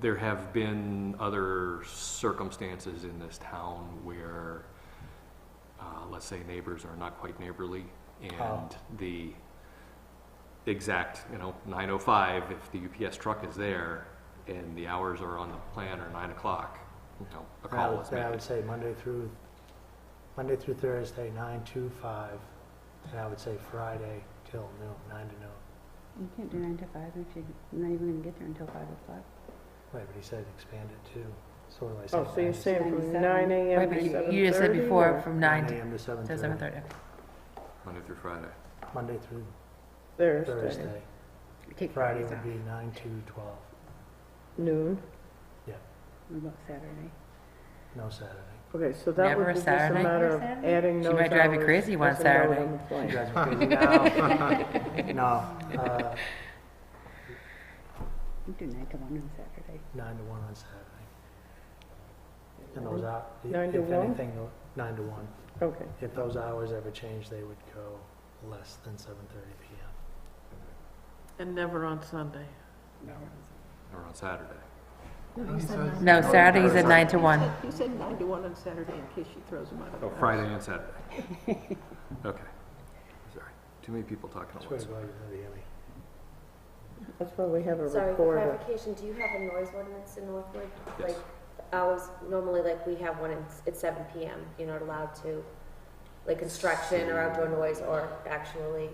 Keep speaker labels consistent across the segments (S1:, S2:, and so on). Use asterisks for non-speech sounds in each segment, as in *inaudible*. S1: there have been other circumstances in this town where, uh, let's say neighbors are not quite neighborly,
S2: Oh.
S1: and the exact, you know, nine oh five, if the UPS truck is there, and the hours are on the plan are nine o'clock, you know, a
S2: Then I
S1: call
S2: would-
S1: is
S2: Then I
S1: made.
S2: would say Monday through, Monday through Thursday, nine to five, and I would say Friday till noon, nine to noon.
S3: You can't do nine to five if you- you're not even gonna get there until five o'clock.
S2: Wait, but he said expand it to, so what do I say?
S4: Oh, so you're
S2: 9 to-
S4: saying from
S3: 97.
S4: nine AM
S5: Right,
S4: to
S5: but
S4: seven
S5: you-
S4: thirty?
S5: you just said before from nine to
S2: AM to seven
S5: to seven
S2: thirty,
S5: thirty.
S1: Monday through Friday.
S2: Monday through
S4: Thursday,
S2: Thursday.
S3: Take
S2: Friday
S3: Fridays
S2: would
S3: off.
S2: be nine to twelve,
S4: noon.
S3: What about Saturday?
S2: no Saturday.
S4: Okay, so that
S5: Never a
S4: would be just a
S5: Saturday?
S4: matter of
S3: Never a Saturday?
S4: adding
S5: She
S4: those hours.
S5: might drive you crazy one
S4: as a note
S5: Saturday.
S4: on the
S2: You
S4: plan.
S2: guys *laughs* are crazy now. *laughs* No, uh,
S3: You do nine to one on Saturday.
S2: nine to one on Saturday. And those out, if
S4: Nine to one?
S2: anything, nine to one.
S4: Okay,
S2: If those hours ever change, they would go less than seven thirty PM.
S6: And never on Sunday.
S1: Or on Saturday.
S5: No, Saturdays at nine to one.
S6: He said nine to one on Saturday in case she throws him out of the
S1: *laughs* Oh,
S6: house.
S1: Friday and Saturday. *laughs* Okay. Sorry. Too many people talking at
S2: Swear to
S1: once.
S2: God, you know the Emmy.
S4: that's why we have a
S7: Sorry, for
S4: recorder.
S7: clarification, do you have a noise ordinance in Northwood?
S1: Yes.
S7: Like, hours, normally like we have one, it's, it's seven PM, you're not allowed to, like construction or outdoor noise or actually,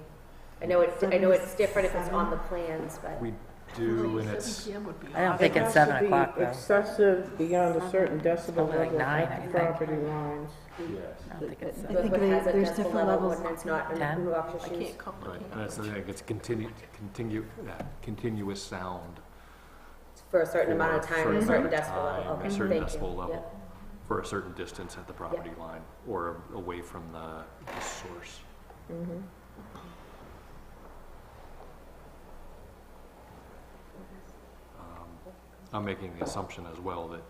S7: I know it's, I know it's different if it's on the plans, but.
S1: We do, and it's,
S6: Seven PM would be
S5: I don't
S6: awesome.
S5: think
S4: It
S5: it's
S4: has to
S5: seven
S4: be
S5: o'clock though.
S4: Excessive beyond a certain decibel
S5: Something like
S4: level
S5: nine,
S4: at
S5: I
S4: the
S5: think.
S4: property lines.
S1: yes.
S5: I don't think it's seven.
S7: Northwood has a decibel level ordinance, not an
S5: Ten?
S7: obnoxious
S6: I
S7: use.
S6: can't
S1: Right,
S6: complicate
S1: and that's the thing, it's continued, continue, yeah, uh, continuous sound.
S7: For a certain amount of
S1: for-
S7: time,
S1: for
S7: a certain
S1: amount of
S7: decibel level,
S1: time,
S7: okay,
S1: A
S7: thank you.
S1: certain decibel
S7: Yep.
S1: level, for a certain distance at the property line, or away from the the source.
S4: Mhm.
S1: Um, I'm making the assumption as well that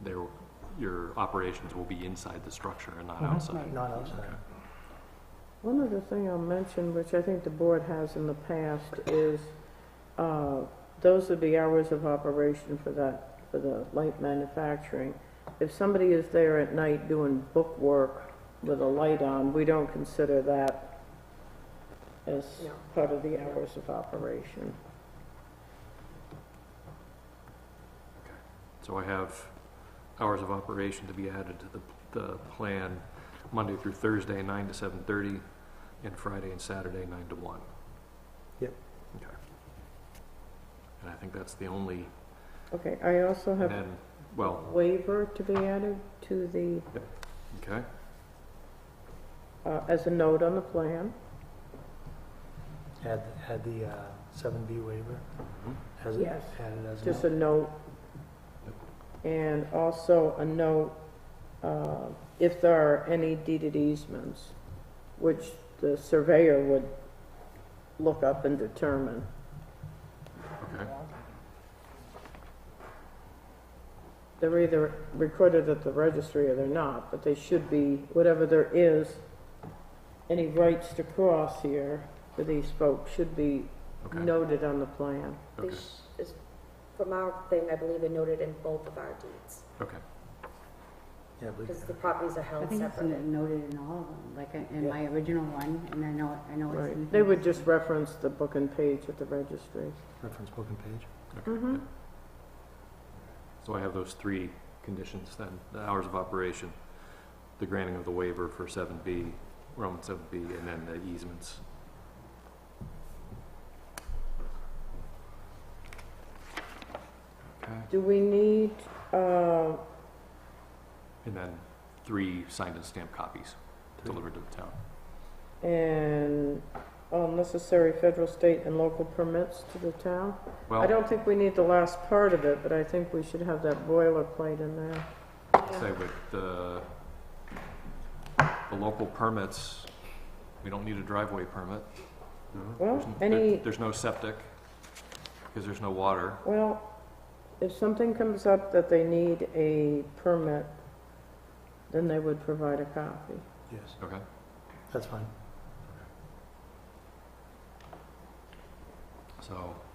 S1: there, your operations will be inside the structure and not
S2: Mhm.
S1: outside.
S2: Not outside.
S4: One other thing I'll mention, which I think the board has in the past, is uh, those are the hours of operation for that, for the light manufacturing. If somebody is there at night doing book work with a light on, we don't consider that as
S7: No.
S4: part of the hours of operation.
S1: So I have hours of operation to be added to the, the plan, Monday through Thursday, nine to seven thirty, and Friday and Saturday, nine to one.
S2: Yep.
S1: Okay. And I think that's the only,
S4: Okay, I also
S1: and
S4: have
S1: then, well,
S4: waiver to be added to the,
S1: okay,
S4: uh, as a note on the plan.
S2: Had, had the uh, seven B waiver,
S1: Mm-hmm.
S2: has it
S4: Yes.
S2: added as
S4: Just
S2: a
S4: a note. And also a note, uh, if there are any deeded easements, which the surveyor would look up and determine.
S1: okay,
S4: They're either recorded at the registry or they're not, but they should be, whatever there is, any rights to cross here for these folks should be
S1: okay,
S4: noted on the plan.
S7: They
S1: okay,
S7: sh- is- From our thing, I believe it noted in both of our deeds,
S1: okay.
S2: Yeah, I believe
S7: because
S2: it.
S7: the properties are
S3: I
S7: held
S3: think it's
S7: separately.
S3: noted in all of them, like in- in my original one, and I know, I know it's. in
S4: Right. They would
S3: here.
S4: just reference the book and page at the registry.
S2: reference book and page.
S4: Mm-hmm.
S1: So I have those three conditions then, the hours of operation, the granting of the waiver for seven B, Roman seven B, and then the easements. Okay,
S4: Do we need, uh,
S1: and then three signed and stamped copies delivered to the town.
S4: and all uh, necessary federal, state, and local permits to the town? I
S1: Well,
S4: don't think we need the last part of it, but I think we should have that boilerplate in there.
S1: I'd say with the, the local permits, we don't need a driveway permit. There's
S4: Well,
S1: n- there-
S4: any,
S1: There's no septic, because there's no water.
S4: well, if something comes up that they need a permit, then they would provide a copy.
S2: Yes,
S1: Okay,
S2: that's fine.
S1: so